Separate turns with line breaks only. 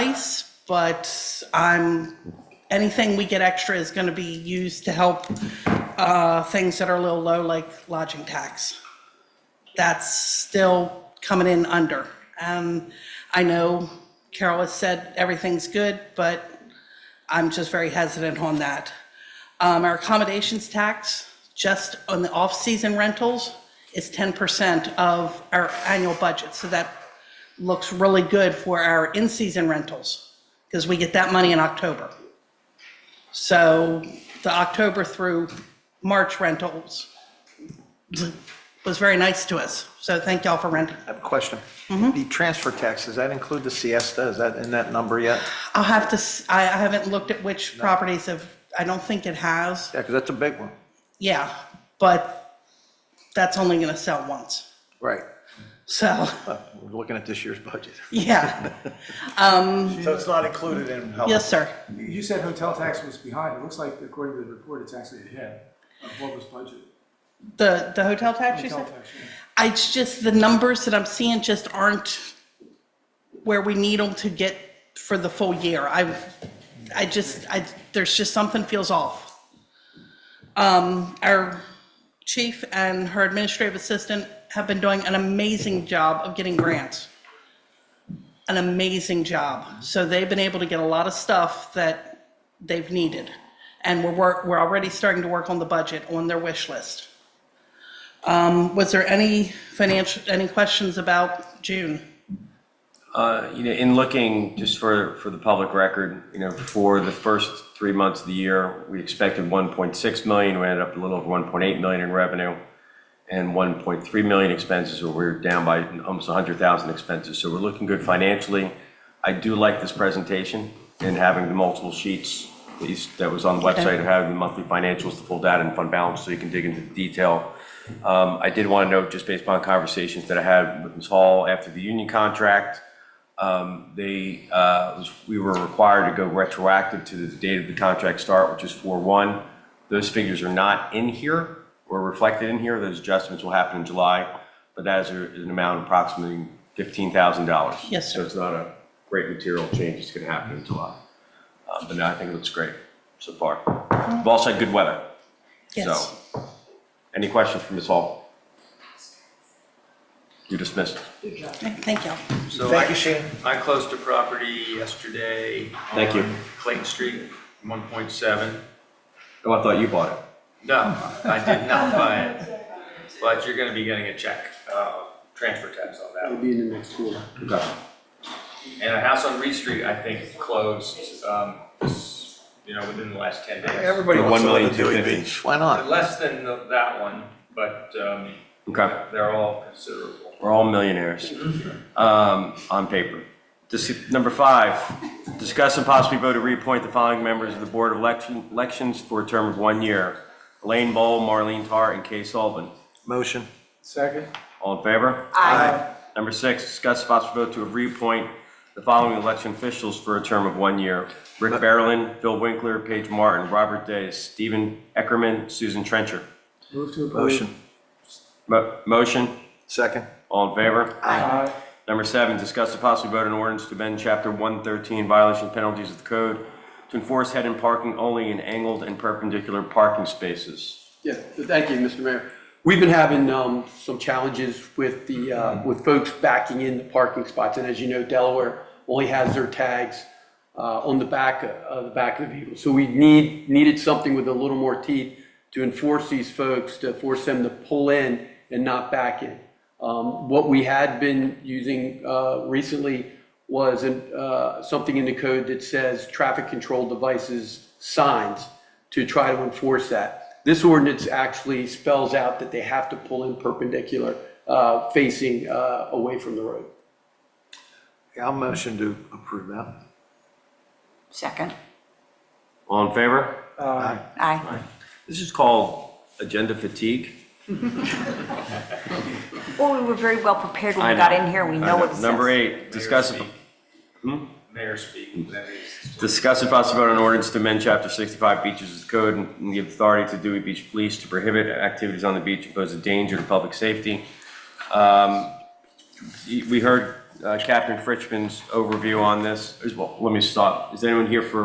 but I'm, anything we get extra is going to be used to help uh, things that are a little low, like lodging tax. That's still coming in under. Um, I know Carol has said everything's good, but I'm just very hesitant on that. Um, Our accommodations tax, just on the off-season rentals, is 10% of our annual budget. So that looks really good for our in-season rentals because we get that money in October. So the October through March rentals was very nice to us. So thank y'all for renting.
I have a question. The transfer tax, does that include the siesta? Is that in that number yet?
I'll have to, s- I I haven't looked at which properties have, I don't think it has.
Yeah, because that's a big one.
Yeah, but that's only going to sell once.
Right.
So,
We're looking at this year's budget.
yeah, Um,
So it's not included in health?
yes, sir.
You you said hotel tax was behind. It looks like according to the report, it's actually ahead of what was budgeted.
The, the hotel tax, you
Hotel
said?
tax, yeah.
I- It's just the numbers that I'm seeing just aren't where we need them to get for the full year. I've, I just, I, there's just something feels off. Um, our chief and her administrative assistant have been doing an amazing job of getting grants. An amazing job. So they've been able to get a lot of stuff that they've needed. And we're, work- we're already starting to work on the budget, on their wish list. Was there any financial, any questions about June?
Uh, You know, in looking, just for, for the public record, you know, for the first three months of the year, we expected 1.6 million, we ended up a little over 1.8 million in revenue, and 1.3 million expenses, or we're down by almost 100,000 expenses, so we're looking good financially. I do like this presentation and having the multiple sheets that you s- that was on the website, and having the monthly financials, the full data and fund balance, so you can dig into the detail. Um, I did want to note, just based upon conversations that I had with Ms. Hall after the union contract, um, They, uh, was- we were required to go retroactive to the date of the contract start, which is 4/1. Those figures are not in here or reflected in here. Those adjustments will happen in July, but that is a- an amount of approximately $15,000.
Yes, sir.
So it's not a great material change that's going to happen in July. Uh, But no, I think it looks great so far. We've also had good weather.
Yes.
So, Any questions from Ms. Hall? You're dismissed.
Okay, Thank you.
So
Thank
I-
you, Shane.
I closed a property yesterday.
Thank you.
on Clayton Street, 1.7.
Oh, I thought you bought it.
No, I did not buy it. But you're gonna be getting a check, uh, transfer tax on that.
It'll be in the next quarter.
Okay.
And a house on Reed Street, I think, closed, um, you know, within the last 10 days.
Everybody
For
wants to
one
live
million,
in Dewey
250.
Beach. Why not?
Less than the- that one, but um,
Okay.
they're all considerable.
We're all millionaires um, on paper. Dis- Number five, discuss and possibly vote to reappoint the following members of the Board of Election- Elections for a term of one year. Elaine Bowl, Marlene Tar, and Kay Sullivan.
Motion.
Second,
All in favor? Aye. Number six, discuss and possibly vote to reappoint the following election officials for a term of one year. Rick Barrelin, Phil Winkler, Paige Martin, Robert Day, Stephen Eckerman, Susan Trencher.
move to approve.
Motion.
Mo- Motion,
Second.
all in favor?
Aye.
Number seven, discuss the possible vote on ordinance to amend Chapter 113 violation penalties of the code to enforce head-in parking only in angled and perpendicular parking spaces.
Yeah, so thank you, Mr. Mayor. We've been having um, some challenges with the, uh, with folks backing in the parking spots. And as you know, Delaware only has their tags uh, on the back, of the back of the vehicle. So we need, needed something with a little more teeth to enforce these folks, to force them to pull in and not back in. Um, What we had been using uh, recently was uh, something in the code that says traffic control devices signs to try to enforce that. This ordinance actually spells out that they have to pull in perpendicular, uh, facing uh, away from the road.
Yeah, I'll motion to approve that.
Second.
All in favor?
Aye.
This is called agenda fatigue.
Well, we were very well prepared when
I
we got
know.
in here. We
I
know what it says.
Number eight, discuss,
Mayor speak. Mayor speak, that is.
discuss and possible vote on ordinance to amend Chapter 65 beaches of the code and give authority to Dewey Beach Police to prohibit activities on the beach that pose a danger to public safety. Um, We heard uh, Captain Fritschman's overview on this. As well, let me stop. Is anyone here for